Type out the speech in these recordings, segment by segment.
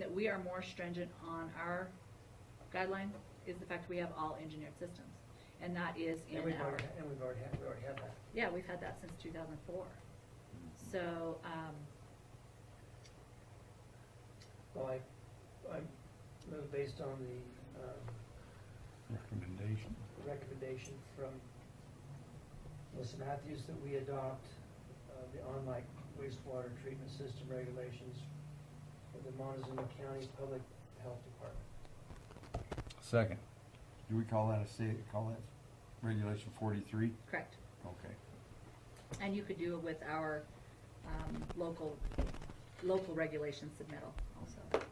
that we are more stringent on our guideline is the fact we have all engineered systems, and that is in And we've our, already, and we've already had, we already had that. yeah, we've had that since two thousand four. So, um, Well, I, I'm, it was based on the, um, Recommendation. recommendation from Melissa Matthews that we adopt, uh, the on-like wastewater treatment system regulations for the Montezuma County Public Health Department. Second. Do we call that a state, call that regulation forty-three? correct, Okay. and you could do it with our, um, local, local regulations submittal also.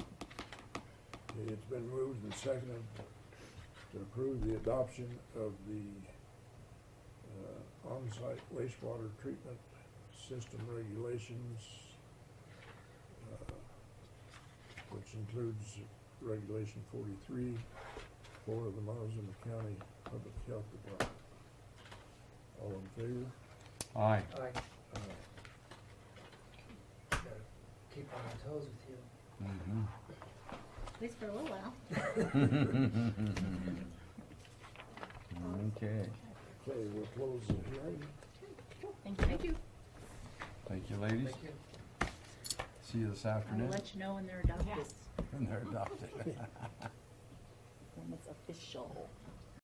Okay, It's been moved and seconded to approve the adoption of the uh, on-site wastewater treatment system regulations, uh, which includes Regulation forty-three for the Montezuma County Public Health Department. All in favor? Uh, Aye. I Aye. gotta keep on my toes with you. Mhm. At least for a little while. Okay. Okay, we'll close the hearing. Thank you. Thank you. Thank you, ladies. Thank you. See you this I will afternoon. let you know when they're adopted, And they're adopted. when it's official.